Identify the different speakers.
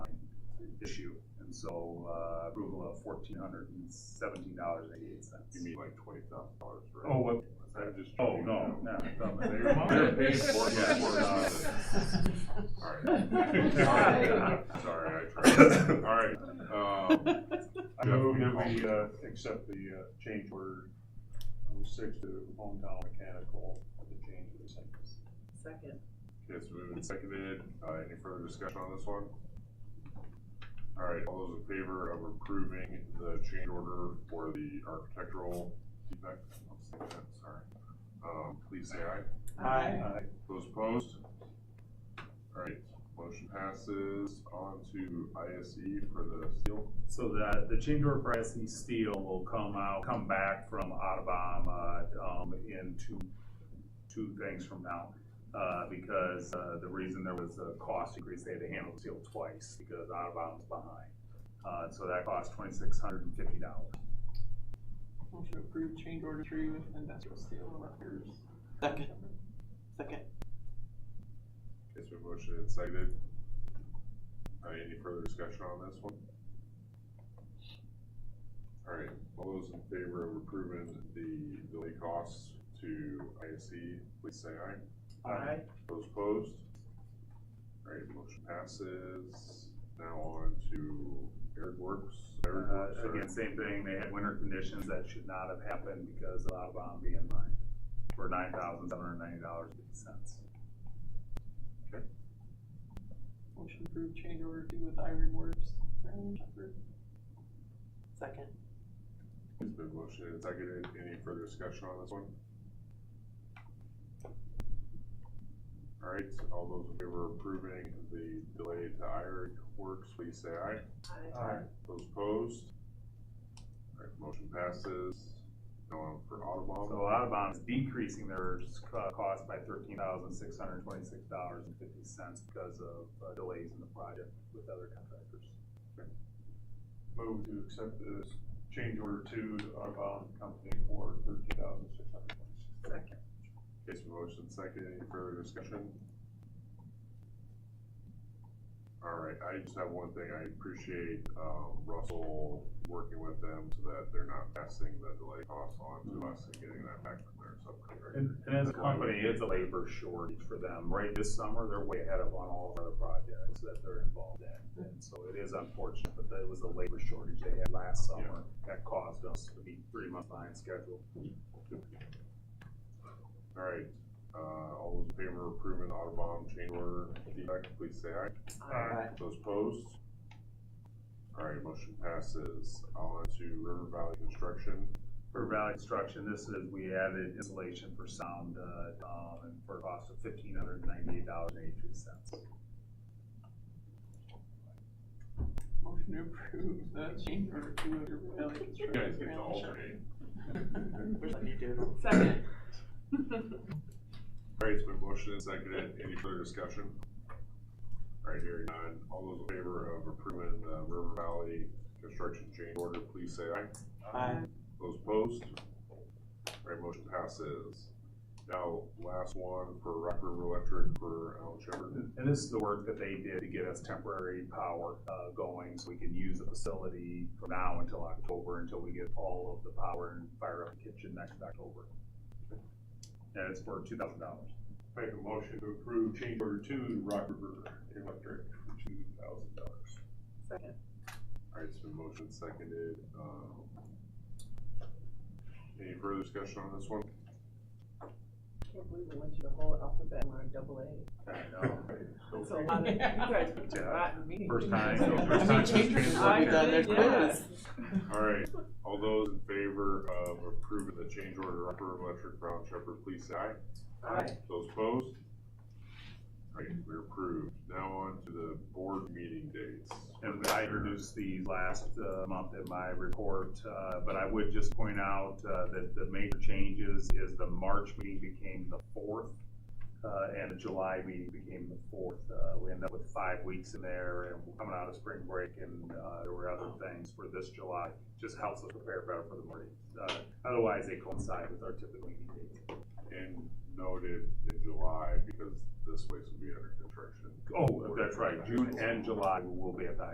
Speaker 1: issue. And so, uh, approval of fourteen hundred and seventeen dollars eighty-eight cents.
Speaker 2: You mean like twenty thousand dollars, right?
Speaker 1: Oh, what,
Speaker 2: I'm just.
Speaker 1: oh, no, no.
Speaker 2: They're
Speaker 1: They're
Speaker 2: paying for it,
Speaker 1: Yeah.
Speaker 2: Alright. Sorry, I tried. Alright, um,
Speaker 3: I move that we, uh, accept the, uh, change order oh six to hometown mechanical, the change of the sentence.
Speaker 4: Second.
Speaker 2: it's moved and seconded, uh, any further discussion on this one? Alright, all those in favor of approving the change order for the architectural defect, I'm saying that, sorry. Um, please say aye.
Speaker 5: Aye.
Speaker 1: Uh,
Speaker 2: Those opposed? Alright, motion passes on to ISE for the seal.
Speaker 1: So the, the change order for SE Steel will come out, come back from Autobahn, uh, um, in two, two things from now. Uh, because, uh, the reason there was a cost increase, they had to handle the seal twice because Autobahn was behind. Uh, so that cost twenty-six hundred and fifty dollars.
Speaker 5: Motion to approve change order three with industrial steel and Rutgers.
Speaker 6: Second. Second.
Speaker 2: It's been motioned and seconded. All right, any further discussion on this one? All right, all those in favor of approving the delay costs to ISC, please say aye.
Speaker 4: Aye.
Speaker 2: Those opposed? All right, motion passes. Now on to Eric Works. Eric Works,
Speaker 1: Uh, again,
Speaker 2: sorry.
Speaker 1: same thing, they had winter conditions that should not have happened because of Autobahn being behind for nine thousand seven hundred and ninety dollars and fifty cents.
Speaker 5: Motion to approve change order two with Iron Works. Brown Shepherd.
Speaker 6: Second.
Speaker 2: It's been motioned and seconded. Any further discussion on this one? All right, all those in favor of approving the delay to Iron Works, please say aye.
Speaker 4: Aye.
Speaker 2: Those opposed? All right, motion passes. Now on for
Speaker 1: So
Speaker 2: Audubon.
Speaker 1: Audubon is decreasing their s- co- cost by thirteen thousand six hundred twenty-six dollars and fifty cents because of uh, delays in the project with other contractors.
Speaker 3: Move to accept this change order two to outbound company for thirteen thousand six hundred twenty-six.
Speaker 4: Second.
Speaker 2: Case for motion second, any further discussion? All right, I just have one thing, I appreciate, um, Russell working with them so that they're not passing the delay costs on to us and getting that back from their subcontractor.
Speaker 1: And, and as a company, it's a labor shortage for them. Right this summer, they're way ahead of on all of our projects that they're involved in. And so it is unfortunate, but that was a labor shortage they had last summer that caused us to be three months behind schedule.
Speaker 2: All right, uh, all those in favor of approving the Audubon change order defect, please say aye.
Speaker 6: Aye.
Speaker 2: Those opposed? All right, motion passes. On to River Valley Construction.
Speaker 1: For Valley Construction, this is, we added insulation for sound, uh, um, and for a cost of fifteen hundred ninety-eight dollars and eighty-three cents.
Speaker 5: Motion to approve the change order two of your Valley
Speaker 2: You guys get
Speaker 5: Construction.
Speaker 2: to
Speaker 5: Brown Shepherd.
Speaker 2: alternate.
Speaker 6: Let you do it.
Speaker 4: Second.
Speaker 2: All right, it's been motioned and seconded. Any further discussion? All right, hearing none. All those in favor of approving the River Valley Construction change order, please say aye.
Speaker 6: Aye.
Speaker 2: Those opposed? All right, motion passes. Now, last one for Rock River Electric for Alan Shepard.
Speaker 1: And this is the work that they did to get us temporary power, uh, going, so we can use the facility from now until October, until we get all of the power and fire up the kitchen next October. And it's for two thousand dollars.
Speaker 3: Make a motion to approve change order two to Rock River Electric for two thousand dollars.
Speaker 4: Second.
Speaker 2: Alright, it's been motion seconded, um. Any further discussion on this one?
Speaker 4: Can't believe we went through the whole alphabet and we're on double A.
Speaker 1: I know.
Speaker 4: That's a lot of, you guys picked a rotten meeting.
Speaker 1: First time.
Speaker 6: I
Speaker 1: first
Speaker 6: mean,
Speaker 1: time
Speaker 6: changes will be done next
Speaker 4: Yeah.
Speaker 6: quiz.
Speaker 2: Alright, all those in favor of approving the change order of Upper Electric Brown Shepherd, please say aye.
Speaker 4: Aye.
Speaker 2: Those opposed? Alright, we're approved. Now on to the board meeting dates.
Speaker 1: And I introduced these last uh, month in my report, uh, but I would just point out uh, that the major changes is the March meeting became the fourth, uh, and the July meeting became the fourth. Uh, We ended up with five weeks in there, and we're coming out of spring break, and uh, there were other things for this July. Just helps us prepare better for the morning. Uh, Otherwise, they coincide with our typical meeting dates.
Speaker 2: And noted in July, because this place will be under construction.
Speaker 1: Oh, that's right, June and July will be at the